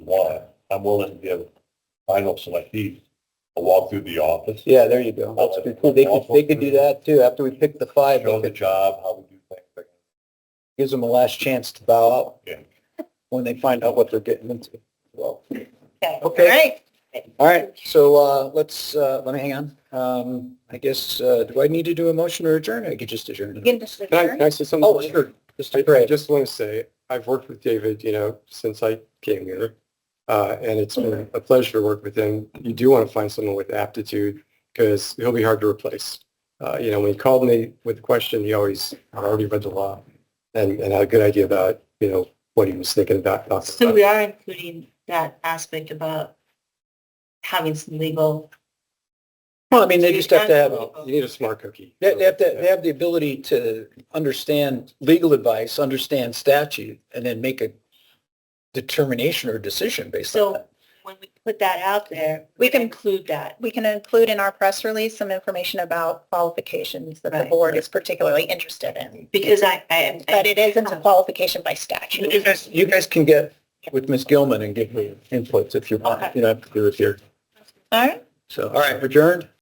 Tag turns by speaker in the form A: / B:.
A: I'm willing to give final selectees a walk through the office.
B: Yeah, there you go. That's pretty cool. They could, they could do that too. After we pick the five,
A: Show the
B: it
A: job, how we do things. like-
B: gives them a last chance to bow out.
A: Yeah.
B: When they find out what they're getting into. Well, Okay.
C: Okay, all right.
B: all right. So, uh, let's, uh, let me hang on. Um, I guess, uh, do I need to do a motion or adjourn? I could just adjourn.
C: You can just
D: Can I, can
C: adjourn.
D: I say something?
B: Oh, sure. Just
D: I, I
B: great.
D: just want to say, I've worked with David, you know, since I came here. Uh, and it's been a pleasure to work with him. You do want to find someone with aptitude because he'll be hard to replace. Uh, you know, when he called me with a question, he always, I already read the law and, and had a good idea about, you know, what he was thinking about. about-
C: So we are including that aspect about having some legal,
B: Well, I mean, they just have to have,
D: Well, You need a smart cookie.
B: they they have to, they have the ability to understand legal advice, understand statute, and then make a determination or decision based on
C: so
B: that.
C: when we put that out there, we can include that.
E: we can include in our press release some information about qualifications that the
C: Right.
E: board is particularly interested in.
C: Because I, I am,
E: But it isn't a qualification by
B: You
E: statute.
B: guys, you guys can get with Ms. Gilman and give her inputs if you want.
C: Okay.
B: You don't have to do it here.
E: All right.
B: So, all right, adjourned?